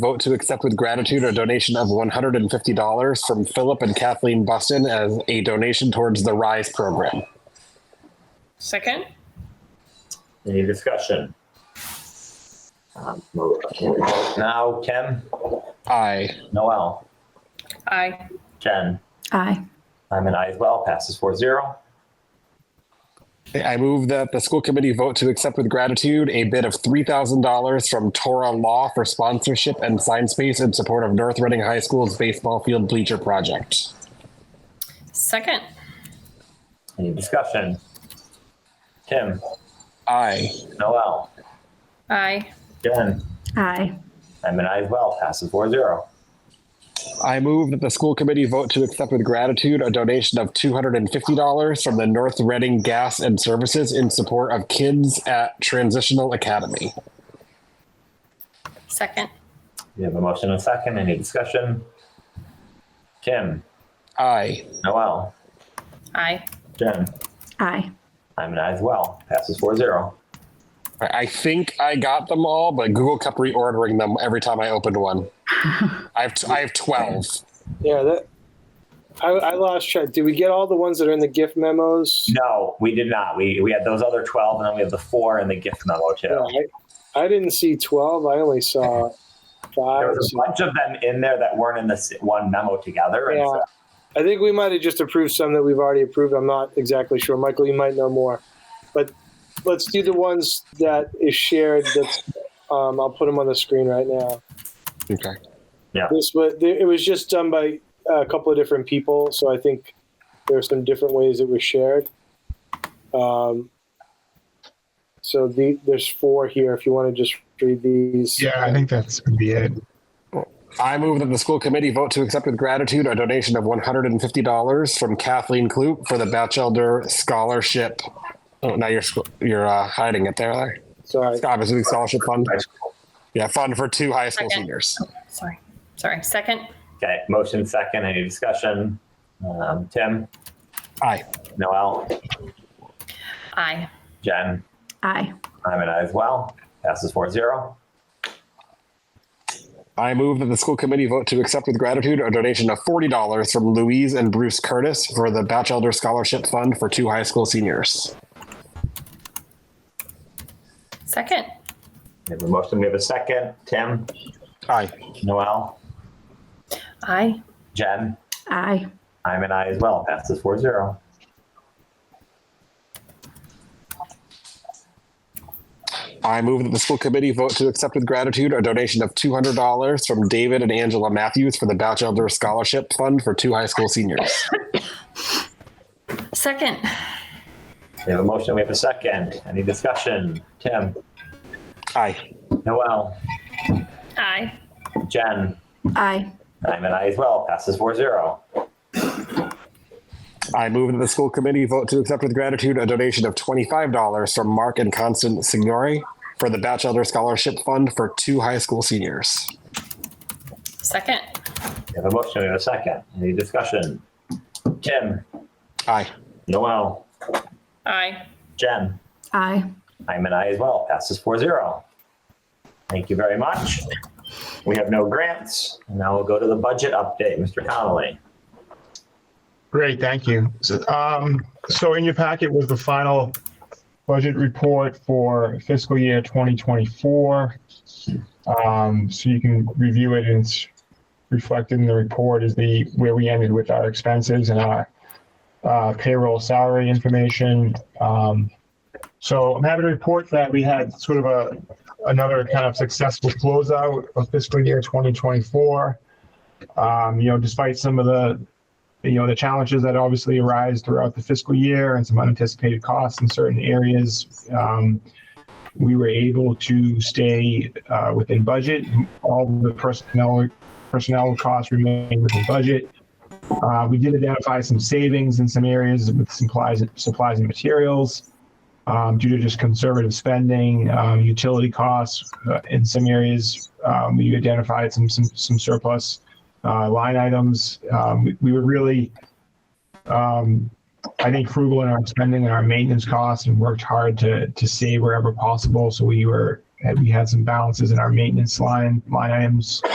Vote to accept with gratitude a donation of $150 from Philip and Kathleen Buston as a donation towards the RISE program. Second? Any discussion? Um, we'll- we'll vote Now, Kim, Aye. Noel, Aye. Jen, Aye. I'm an I as well, passes four zero. I move that the school committee vote to accept with gratitude a bid of $3,000 from Torah Law for sponsorship and sign space in support of North Reading High School's baseball field bleacher project. Second? Any discussion? Kim, Aye. Noel, Aye. Jen, Aye. I'm an I as well, passes four zero. I move that the school committee vote to accept with gratitude a donation of $250 from the North Reading Gas and Services in support of kids at Transitional Academy. Second? We have a motion and a second. Any discussion? Kim, Aye. Noel, Aye. Jen, Aye. I'm an I as well, passes four zero. I I think I got them all, but Google kept reordering them every time I opened one. I have, t- I have 12. Yeah, that I, I lost track. Did we get all the ones that are in the gift memos? No, we did not. We, we had those other twelve and then we have the four in the gift memo too. Yeah, I, I didn't see twelve. I only saw five. There or was a something. bunch of them in there that weren't in this one memo together. And so Yeah, I think we might have just approved some that we've already approved. I'm not exactly sure. Michael, you might know more, but let's do the ones that is shared. That's um, I'll put them on the screen right now. Okay. This was it was just done by a couple of different people, so I think there are some different ways it was shared. Um, so the, there's four here. If you want to just read these, Yeah, I think that's gonna be it. I move that the school committee vote to accept with gratitude a donation of $150 from Kathleen Kloop for the Batchelder Scholarship. Oh, now you're, sc- you're uh, hiding it there. Larry. Sorry. Obviously, scholarship fund. High school. Yeah, fund for two high school Second. seniors. Oh, Sorry. Sorry. Second? Okay, motion second. Any discussion? Um, Tim, Aye. Noel, Aye. Jen, Aye. I'm an I as well. Passes four zero. I move that the school committee vote to accept with gratitude a donation of $40 from Louise and Bruce Curtis for the Batchelder Scholarship Fund for two high school seniors. Second? We have a motion. We have a second. Tim, Aye. Noel, Aye. Jen, Aye. I'm an I as well. Passes four zero. I move that the school committee vote to accept with gratitude a donation of $200 from David and Angela Matthews for the Batchelder Scholarship Fund for two high school seniors. Second? We have a motion. We have a second. Any discussion? Tim, Aye. Noel, Aye. Jen, Aye. I'm an I as well. Passes four zero. I move that the school committee vote to accept with gratitude a donation of $25 from Mark and Constant Signori for the Batchelder Scholarship Fund for two high school seniors. Second? We have a motion. We have a second. Any discussion? Tim, Aye. Noel, Aye. Jen, Aye. I'm an I as well. Passes four zero. Thank you very much. We have no grants. and Now we'll go to the budget update, Mr. Connolly. Great, thank you. So, um, so in your packet was the final budget report for fiscal year 2024. Um, so you can review it and it's reflected in the report is the, where we ended with our expenses and our uh, payroll salary information. Um, so I'm happy to report that we had sort of a, another kind of successful closeout of fiscal year 2024. Um, you know, despite some of the you know, the challenges that obviously arise throughout the fiscal year and some unanticipated costs in certain areas. Um, we were able to stay uh, within budget. All the personnel personnel costs remain within budget. Uh, we did identify some savings in some areas with supplies supplies and materials um, due to just conservative spending, um, utility costs uh, in some areas. Um, we identified some some some surplus uh, line items. Um, we, we were really, um, I think, frugal in our spending and our maintenance costs, and worked hard to to save wherever possible. So we were we had some balances in our maintenance line line items